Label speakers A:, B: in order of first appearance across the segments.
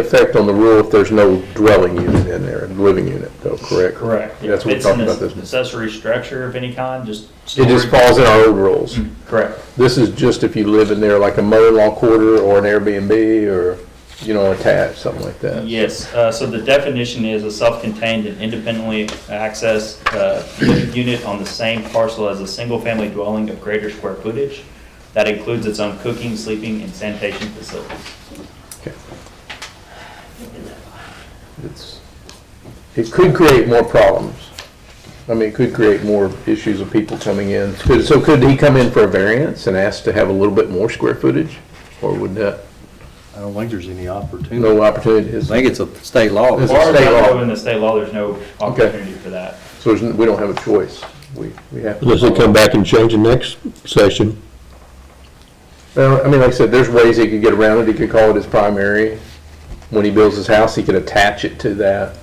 A: effect on the rule if there's no dwelling unit in there, living unit though, correct?
B: Correct.
A: That's what we
B: If it's an
A: talked about this.
B: Accessory structure of any kind, just.
A: It just
B: storage.
A: falls in our old rules.
B: Mm, Correct.
A: This is just if you live in there like a mother-in-law quarter or an Airbnb or, you know, attached, something like that.
B: Yes, uh, so the definition is a self-contained and independently accessed uh, living unit on the same parcel as a single-family dwelling of greater square footage. That includes its own cooking, sleeping, and sanitation facilities.
A: Okay. It's- It could create more problems. I mean, it could create more issues of people coming in. Could- So could he come in for a variance and ask to have a little bit more square footage? Or would that,
C: I don't think there's any opportunity.
A: no opportunity?
C: I think it's a state law.
A: It's
B: As
A: a
B: far as I
A: state law.
B: know, in the state law, there's no opportunity for that.
A: So there's, n- we don't have a choice. We, we have. to-
D: Unless they come back and change the next session.
A: Well, I mean, like I said, there's ways he could get around it. He could call it his primary. When he builds his house, he could attach it to that.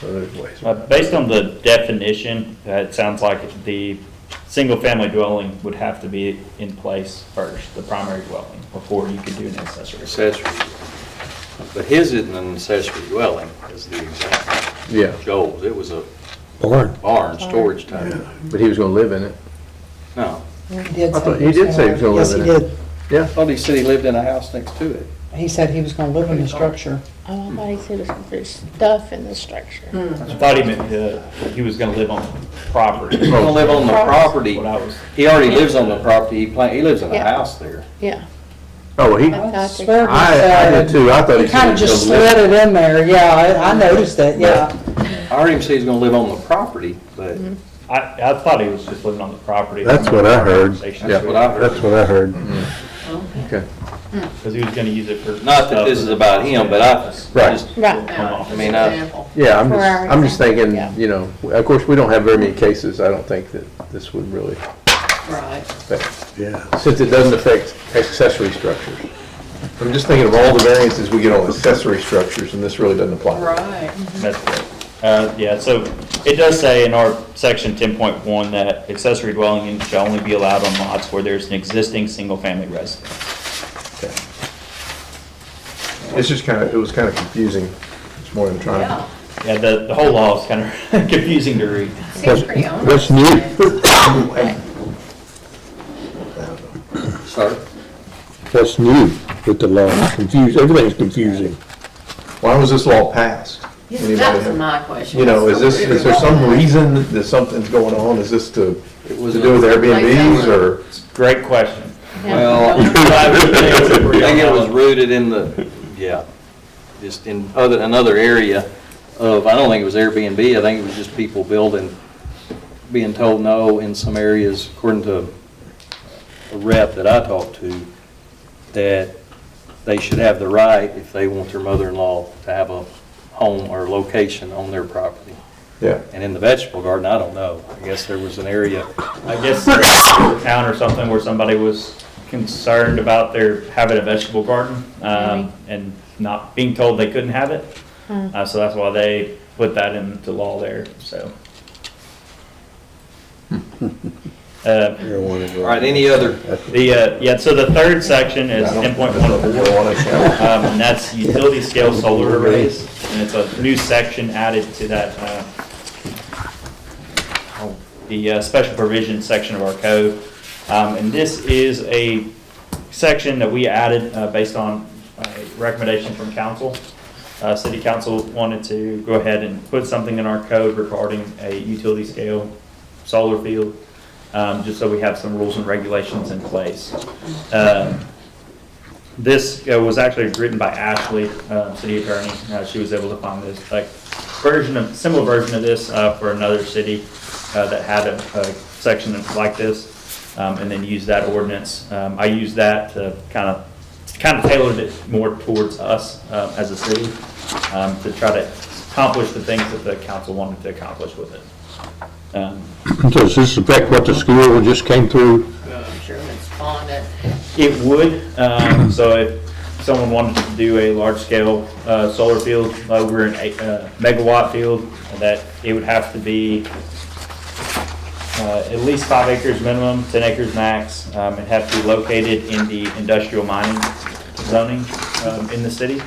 A: So there's ways.
B: Uh, Based on the definition, uh, it sounds like the single-family dwelling would have to be in place first, the primary dwelling, before you could do an accessory.
E: accessory. But his isn't an accessory dwelling, is the example.
A: Yeah,
E: Joel's, it was a
D: Barn.
E: barn, storage type.
A: but he was gonna live in it.
E: No,
F: He did
A: I thought-
F: say
A: he did say he was gonna live in
F: Yes,
A: it.
F: he did.
A: Yeah.
C: Thought he said he lived in a house next to it.
F: He said he was gonna live in the structure.
G: Oh, I thought he said it was- there's stuff in the structure.
B: I thought he meant uh, he was gonna live on property.
E: he's gonna live on the property.
B: What I was,
E: He already lives on the property, he plan, he lives in a
G: Yeah.
E: house there.
G: Yeah,
A: Oh, well, he,
G: I
F: I
G: thought they-
F: swear he
A: I, I did
F: said,
A: too. I thought he
F: he
A: said.
F: kinda
A: he was
F: just
A: gonna live
F: slid it in there, yeah, I, I noticed that, yeah.
E: I heard him say he's gonna live on the property, but
B: I, I thought he was just living on the property.
D: That's what I heard.
E: that's
B: Because
E: what I
D: That's
E: heard.
D: what I heard.
A: in it. Okay.
B: he was gonna use it for.
E: Not that this is about him, but I,
A: Right.
E: just,
G: right.
E: I mean, I,
A: Yeah, I'm
G: For
A: just,
G: our
A: I'm just
G: example,
A: thinking,
G: yeah.
A: you know, of course, we don't have very many cases. I don't think that this would really,
H: Right.
A: affect-
D: Yeah.
A: since it doesn't affect accessory structures. I'm just thinking of all the variances we get on accessory structures and this really doesn't apply.
H: Right.
B: That's correct. Uh, yeah, so it does say in our section ten point one that accessory dwelling units shall only be allowed on lots where there's an existing single-family residence.
A: Okay. It's just kind of, it was kind of confusing this morning trying to.
H: Yeah.
B: Yeah, the, the whole law is kind of confusing to read.
H: Seems pretty onerous.
D: That's new,
E: sorry.
D: that's new with the law. Confused, everything's confusing.
A: Why was this law passed? Anybody
H: Yes, That
A: have-
H: was my question.
A: You know, is this, is there some reason that something's going on? Is this to,
E: It
A: to
E: was
A: do with
E: a-
A: Airbnbs or?
B: Great question.
E: Well, I think it was rooted in the, yeah, just in other, another area of, I don't think it was Airbnb, I think it was just people building, being told no in some areas, according to a rep that I talked to, that they should have the right, if they want their mother-in-law, to have a home or location on their property.
A: Yeah.
E: And in the vegetable garden, I don't know, I guess there was an area,
B: I guess a town or something where somebody was concerned about their having a vegetable garden, um, and not being told they couldn't have it. Uh, so that's why they put that into law there, so. Uh,
E: all right, any other
B: The, uh, yeah, so the third section is ten point one four, um, and that's utility scale solar arrays, and it's a new section added to that, uh, oh, the uh, special provision section of our code. Um, and this is a section that we added, uh, based on a recommendation from council. Uh, city council wanted to go ahead and put something in our code regarding a utility scale solar field, um, just so we have some rules and regulations in place. Um, This uh, was actually written by Ashley, uh, city attorney. Uh, She was able to find this, like, version of, similar version of this uh, for another city uh, that had a a section like this, um, and then used that ordinance. Um, I used that to kind of, kind of tailored it more towards us uh, as a city um, to try to accomplish the things that the council wanted to accomplish with it. Um,
D: Does this affect what the school just came through?
H: I'm sure it's on it.
B: It would, um, so if someone wanted to do a large-scale, uh, solar field over an eight, uh, megawatt field, that it would have to be, uh, at least five acres minimum, ten acres max, um, it'd have to be located in the industrial mining zoning, um, in the city.